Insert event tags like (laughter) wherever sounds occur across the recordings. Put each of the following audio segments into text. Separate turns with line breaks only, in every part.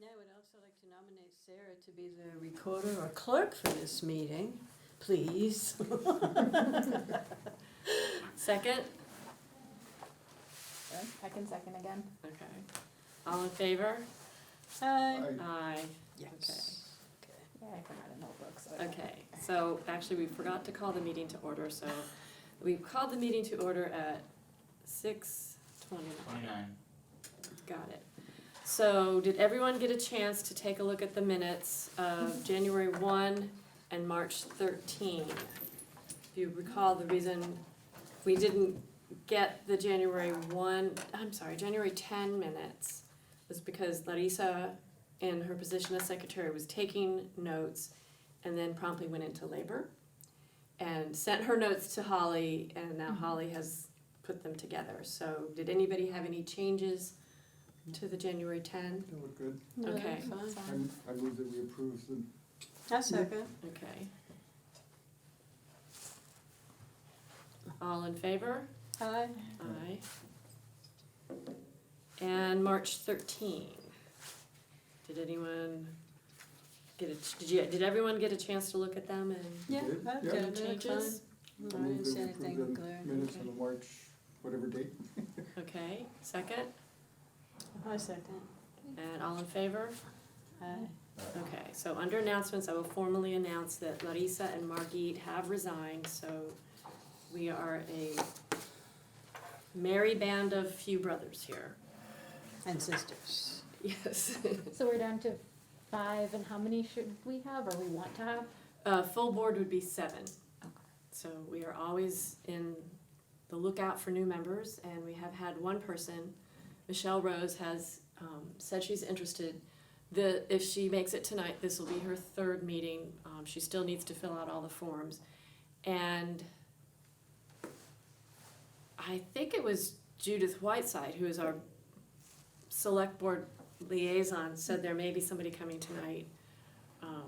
I'd like to nominate Sarah to be the recorder or clerk for this meeting, please. (laughs) Second?
I can second again.
Okay. All in favor? Aye. Aye.
Yes.
Yeah, I forgot a notebook, so. I don't-
Okay, so actually, we forgot to call the meeting to order, so we called the meeting to order at six twenty-nine.
Twenty-nine.
Got it. So did everyone get a chance to take a look at the minutes of January one and March thirteen? If you recall, the reason we didn't get the January one, I'm sorry, January ten minutes was because Larissa, in her position as secretary, was taking notes and then promptly went into labor and sent her notes to Holly, and now Holly has put them together. So did anybody have any changes to the January ten?
They look good.
No,
Okay.
it's fine.
I'm- I move that we approve them.
I second. Okay. All in favor?
Aye.
Aye. And March thirteen. Did anyone get a, did you, did everyone get a chance to look at them and
Yeah, I did.
any changes?
I move that we approve the minutes on the March, whatever date.
Okay, second,
I second.
and all in favor?
Aye.
Okay, so under announcements, I will formally announce that Larissa and Margit have resigned, so we are a merry band of few brothers here. (laughs)
And sisters.
Yes.
So we're down to five, and how many should we have, or we want to have?
Uh, full board would be seven.
Okay.
So we are always in the lookout for new members, and we have had one person, Michelle Rose, has um, said she's interested. The, if she makes it tonight, this will be her third meeting. Um, she still needs to fill out all the forms. And I think it was Judith Whiteside, who is our select board liaison, said there may be somebody coming tonight um,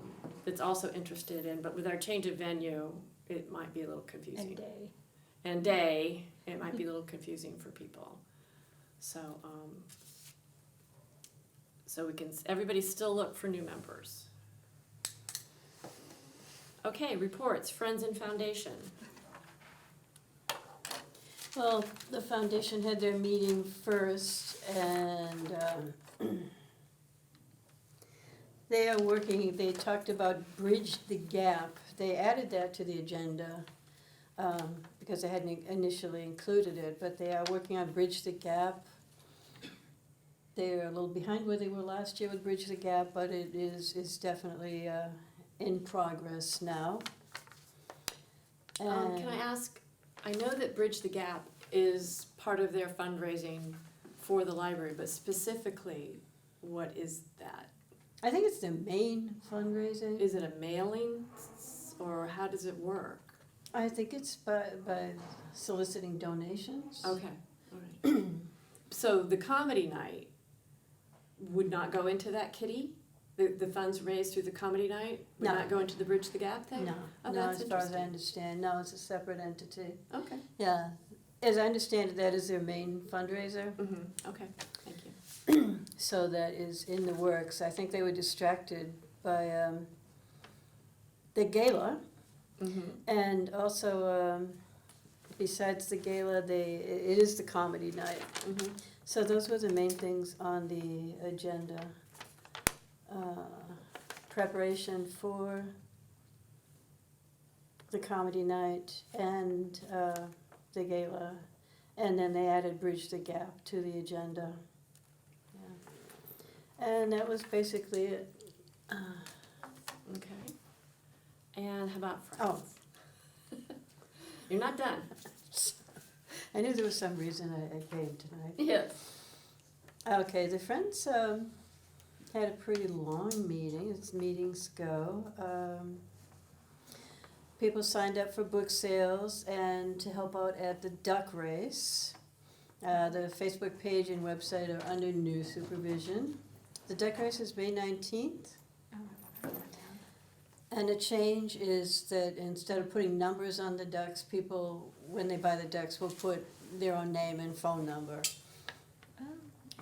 that's also interested in, but with our change of venue, it might be a little confusing
And day.
and day, it might be a little confusing for people. So, um, so we can, everybody still look for new members. Okay, reports, Friends and Foundation.
Well, the foundation had their meeting first and um, they are working, they talked about bridge the gap. They added that to the agenda um, because they hadn't initially included it, but they are working on bridge the gap. They're a little behind where they were last year with bridge the gap, but it is, is definitely uh, in progress now.
Um, can I
And-
ask, I know that Bridge the Gap is part of their fundraising for the library, but specifically, what is that?
I think it's the main fundraising.
Is it a mailing s- or how does it work?
I think it's by, by soliciting donations.
Okay, alright. (clears throat) So the comedy night would not go into that kitty? The, the funds raised through the comedy night would
No.
not go into the Bridge the Gap thing?
No,
Oh,
no,
that's
as far as I
interesting.
understand, no, it's a separate entity.
Okay,
Yeah, as I understand it, that is their main fundraiser,
mm-hmm, okay, thank you.
so that is in the works. I think they were distracted by, um, the gala.
Mm-hmm,
And also, um, besides the gala, they, it is the comedy night.
mm-hmm.
So those were the main things on the agenda. Uh, Preparation for the comedy night and uh, the gala. And then they added Bridge the Gap to the agenda. Yeah. And that was basically it. Uh,
Okay. And how about
Oh.
Friends? (laughs) You're not done?
I knew there was some reason I I came tonight.
Yes.
Okay, the Friends um, had a pretty long meeting, as meetings go. Um, people signed up for book sales and to help out at the duck race. Uh, the Facebook page and website are under new supervision. The duck race is May 19th,
Oh, I wrote that down.
and the change is that instead of putting numbers on the ducks, people, when they buy the ducks, will put their own name and phone number.
Um,